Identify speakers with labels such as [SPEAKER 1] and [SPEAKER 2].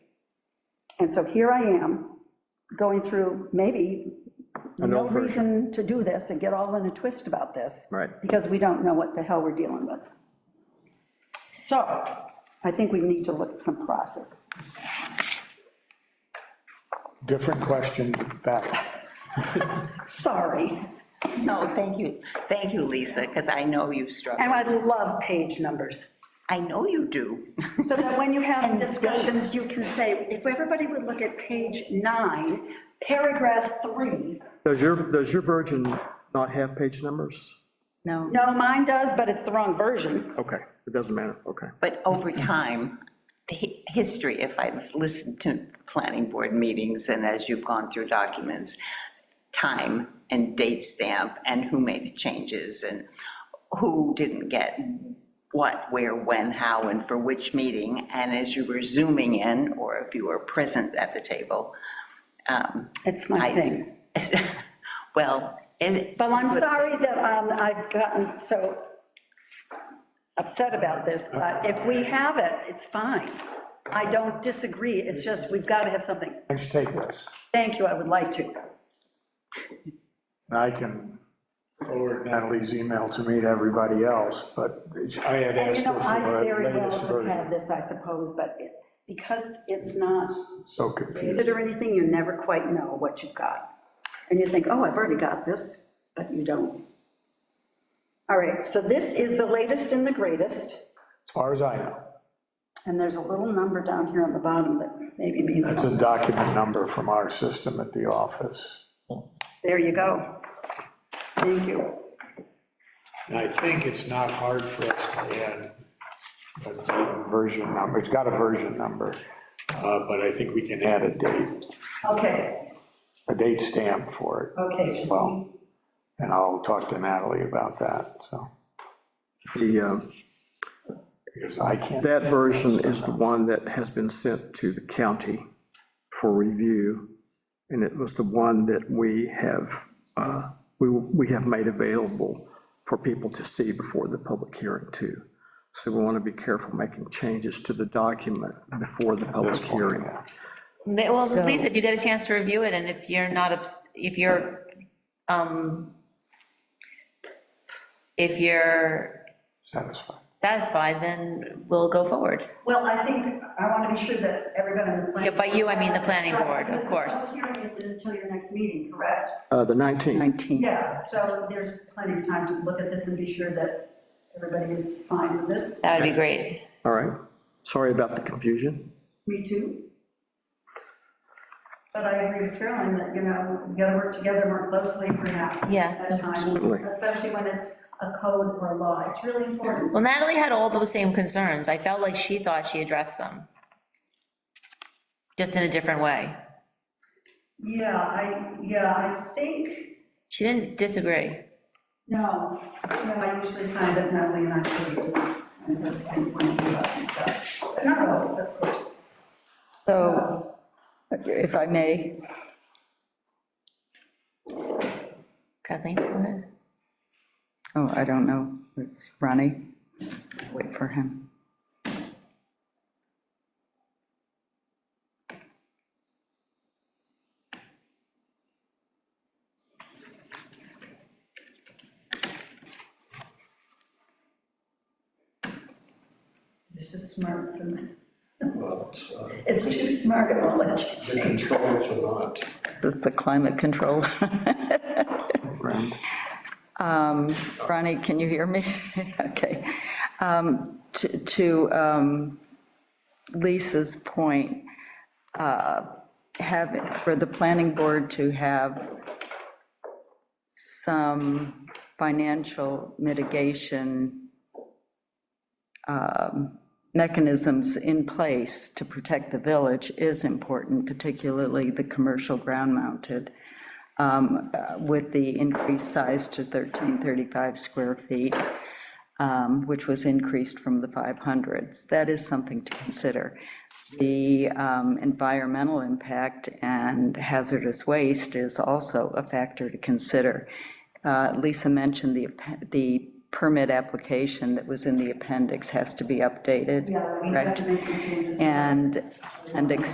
[SPEAKER 1] And so here I am, going through maybe
[SPEAKER 2] An
[SPEAKER 1] no
[SPEAKER 2] old version.
[SPEAKER 1] reason to do this and get all in a twist about this.
[SPEAKER 2] Right.
[SPEAKER 1] Because we don't know what the hell we're dealing with. So I think we need to look at some process.
[SPEAKER 3] Different question, back.
[SPEAKER 1] Sorry.
[SPEAKER 4] No, thank you, thank you, Lisa, because I know you
[SPEAKER 1] And
[SPEAKER 4] struggle.
[SPEAKER 1] I love page numbers.
[SPEAKER 4] I know you do.
[SPEAKER 1] So that when you have
[SPEAKER 4] And
[SPEAKER 1] discussions, you can say, if everybody would look at page nine, paragraph three.
[SPEAKER 2] Does your, does your version not have page numbers?
[SPEAKER 5] No,
[SPEAKER 1] No, mine does, but it's the wrong version.
[SPEAKER 2] Okay, it doesn't matter, okay.
[SPEAKER 4] But over time, the hi- history, if I've listened to planning board meetings and as you've gone through documents, time and date stamp and who made the changes and who didn't get what, where, when, how, and for which meeting. And as you were zooming in, or if you were present at the table,
[SPEAKER 1] It's my
[SPEAKER 4] I,
[SPEAKER 1] thing.
[SPEAKER 4] well, it.
[SPEAKER 1] Well, I'm sorry that um, I've gotten so upset about this,
[SPEAKER 3] Uh-huh.
[SPEAKER 1] but if we have it, it's fine. I don't disagree, it's just, we've got to have something.
[SPEAKER 3] Let's take this,
[SPEAKER 1] Thank you, I would like to.
[SPEAKER 3] and I can forward Natalie's email to me to everybody else, but I
[SPEAKER 1] And
[SPEAKER 3] had
[SPEAKER 1] you
[SPEAKER 3] asked
[SPEAKER 1] know,
[SPEAKER 3] her
[SPEAKER 1] I
[SPEAKER 3] for
[SPEAKER 1] very
[SPEAKER 3] the
[SPEAKER 1] well
[SPEAKER 3] latest
[SPEAKER 1] could have
[SPEAKER 3] version.
[SPEAKER 1] this, I suppose, but it- because it's not
[SPEAKER 3] So confused.
[SPEAKER 1] dated or anything, you never quite know what you've got. And you think, oh, I've already got this, but you don't. All right, so this is the latest and the greatest,
[SPEAKER 3] As far as I know,
[SPEAKER 1] and there's a little number down here on the bottom that maybe means
[SPEAKER 3] that's a document number from our system at the office.
[SPEAKER 1] There you go. Thank you.
[SPEAKER 3] And I think it's not hard for us to add a version number, it's got a version number, uh, but I think we can add a date,
[SPEAKER 1] Okay,
[SPEAKER 3] a date stamp for it
[SPEAKER 1] okay.
[SPEAKER 3] as well. And I'll talk to Natalie about that, so,
[SPEAKER 2] The, uh,
[SPEAKER 3] because I can't.
[SPEAKER 2] that version is the one that has been sent to the county for review, and it was the one that we have, uh, we, we have made available for people to see before the public hearing too. So we want to be careful making changes to the document before the public hearing.
[SPEAKER 5] They- well, Lisa, if you get a chance to review it, and if you're not, obs- if you're, um, if you're
[SPEAKER 3] Satisfied.
[SPEAKER 5] satisfied, then we'll go forward.
[SPEAKER 1] Well, I think, I want to be sure that everybody on the planning.
[SPEAKER 5] Yeah, by you, I mean the planning board, of
[SPEAKER 1] Because the
[SPEAKER 5] course.
[SPEAKER 1] public hearing isn't until your next meeting, correct?
[SPEAKER 2] Uh, The 19th,
[SPEAKER 1] Yeah, so there's plenty of time to look at this and be sure that everybody is fine with this.
[SPEAKER 5] That would be great.
[SPEAKER 2] all right. Sorry about the confusion.
[SPEAKER 1] Me too. But I agree with Carolyn that, you know, we gotta work together more closely perhaps.
[SPEAKER 5] Yeah, so-
[SPEAKER 1] At times,
[SPEAKER 2] Absolutely.
[SPEAKER 1] especially when it's a code or a law. It's really important.
[SPEAKER 5] Well, Natalie had all those same concerns. I felt like she thought she addressed them. Just in a different way.
[SPEAKER 1] Yeah, I, yeah, I think
[SPEAKER 5] She didn't disagree.
[SPEAKER 1] No, no, I usually find that Natalie and I sort of do, and have the same point of view about some stuff, but not always, of course.
[SPEAKER 6] So, if I may,
[SPEAKER 5] Kathleen, go ahead.
[SPEAKER 6] oh, I don't know, it's Ronnie, wait for him.
[SPEAKER 1] This is smart for me.
[SPEAKER 7] but uh,
[SPEAKER 1] It's too smart, it won't let you.
[SPEAKER 7] the controls are not
[SPEAKER 6] This is the climate control. Um, Ronnie, can you hear me? Okay. Um, To to, um, Lisa's point, uh, have, for the planning board to have some financial mitigation um, mechanisms in place to protect the village is important, particularly the commercial ground-mounted with the increased size to 1335 square feet, um, which was increased from the 500s. That is something to consider. The um, environmental impact and hazardous waste is also a factor to consider. Uh, Lisa mentioned the, app- the permit application that was in the appendix has to be updated.
[SPEAKER 1] Yeah, we have to make some changes.
[SPEAKER 6] And, and extend